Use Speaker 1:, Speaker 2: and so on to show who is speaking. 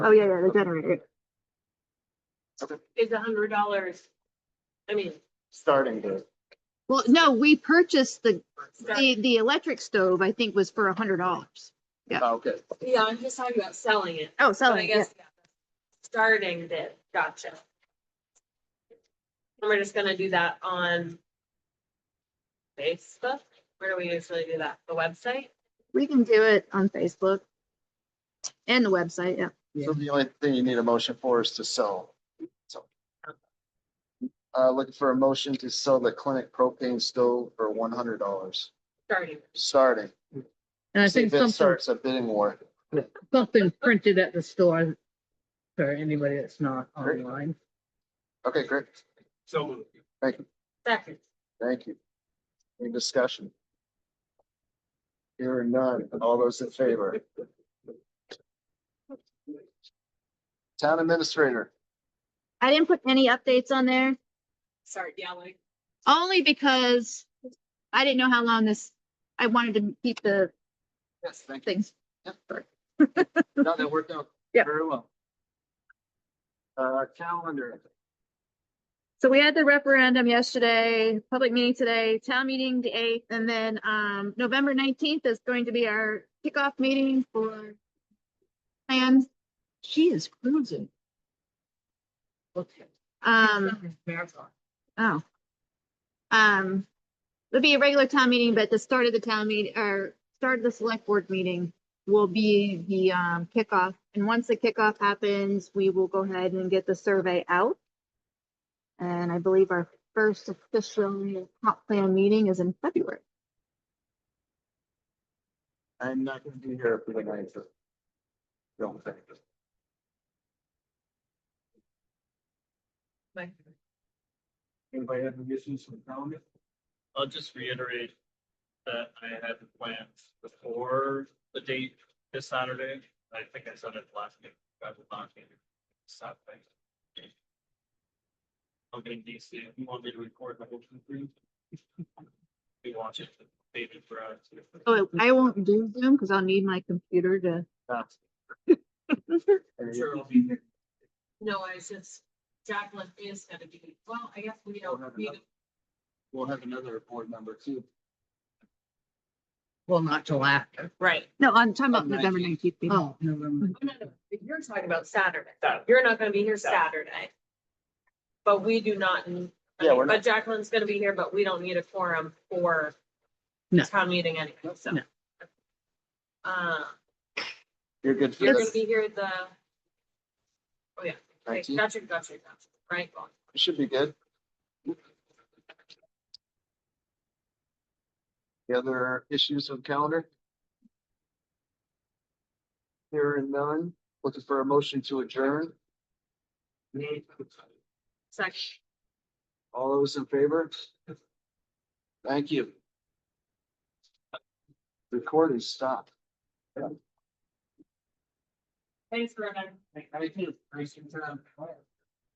Speaker 1: Oh, yeah, yeah, the generator.
Speaker 2: is a hundred dollars. I mean,
Speaker 3: starting to,
Speaker 1: Well, no, we purchased the,
Speaker 2: start-
Speaker 1: the, the electric stove, I think was for a hundred dollars. Yeah.
Speaker 3: Oh, okay.
Speaker 2: yeah, I'm just talking about selling it.
Speaker 1: Oh,
Speaker 2: So I
Speaker 1: selling, yeah.
Speaker 2: guess yeah, starting it, gotcha. And we're just gonna do that on Facebook? Where do we usually do that? The website?
Speaker 1: We can do it on Facebook. And the website, yeah.
Speaker 3: So the only thing you need a motion for is to sell. So. Uh, looking for a motion to sell the clinic propane stove for one hundred dollars,
Speaker 2: Starting.
Speaker 3: starting.
Speaker 4: And I
Speaker 3: See
Speaker 4: think
Speaker 3: if it
Speaker 4: something,
Speaker 3: starts a bidding war.
Speaker 4: something printed at the store for anybody that's not
Speaker 3: Great.
Speaker 4: online.
Speaker 3: Okay, great.
Speaker 5: So moved.
Speaker 2: Second.
Speaker 3: Thank you. Any discussion? Here or none, all those in favor? Town administrator,
Speaker 1: I didn't put any updates on there,
Speaker 2: Start yelling.
Speaker 1: only because I didn't know how long this, I wanted to keep the
Speaker 3: yes, thank you.
Speaker 1: things.
Speaker 3: No, that worked out.
Speaker 1: Yeah.
Speaker 3: Very well. Uh, calendar.
Speaker 1: So we had the referendum yesterday, public meeting today, town meeting the eighth, and then, um, November nineteenth is going to be our kickoff meeting for plans. She is cruising.
Speaker 4: Okay.
Speaker 1: Um, Oh. Um, it'll be a regular town meeting, but the start of the town meeting, or start of the select board meeting will be the um kickoff. And once the kickoff happens, we will go ahead and get the survey out. And I believe our first official comp plan meeting is in February.
Speaker 3: I'm not gonna be here for the ninth. of- Don't think.
Speaker 5: Anybody have any issues with calendar?
Speaker 6: I'll just reiterate that I had the plans before the date this Saturday. I think I said it last week. I will not be here Saturday. I'll be in DC. If you want me to record my whole thing. We want it to be in for us.
Speaker 1: Oh, I won't do Zoom because I'll need my computer to,
Speaker 3: That's-
Speaker 6: I'm sure it'll be here.
Speaker 2: No, I was just, Jacqueline is gonna be, well, I guess we don't need, to-
Speaker 3: We'll have another board member too.
Speaker 4: Well, not till after.
Speaker 2: right.
Speaker 1: no, I'm talking about
Speaker 3: On
Speaker 1: November nineteenth.
Speaker 4: Oh, November.
Speaker 2: No, no, but You're talking about Saturday.
Speaker 6: Saturday.
Speaker 2: You're not gonna be here
Speaker 6: Saturday.
Speaker 2: Saturday. But we do not, n- I
Speaker 3: Yeah,
Speaker 2: mean,
Speaker 3: we're
Speaker 2: but Jacqueline's gonna be here, but we don't need a quorum for
Speaker 4: No.
Speaker 2: town meeting anyway, so.
Speaker 4: No.
Speaker 2: Uh,
Speaker 3: You're good for
Speaker 2: you're gonna
Speaker 3: this.
Speaker 2: be here the, oh yeah, okay,
Speaker 3: Nineteen.
Speaker 2: gotcha, gotcha, gotcha, right? well,
Speaker 3: It Should be good. The other issues with calendar? Here and none, looking for a motion to adjourn,
Speaker 2: Second.
Speaker 3: all those in favor? Thank you. Recording stopped.
Speaker 2: Thanks for having.
Speaker 3: Thank you. Appreciate your time.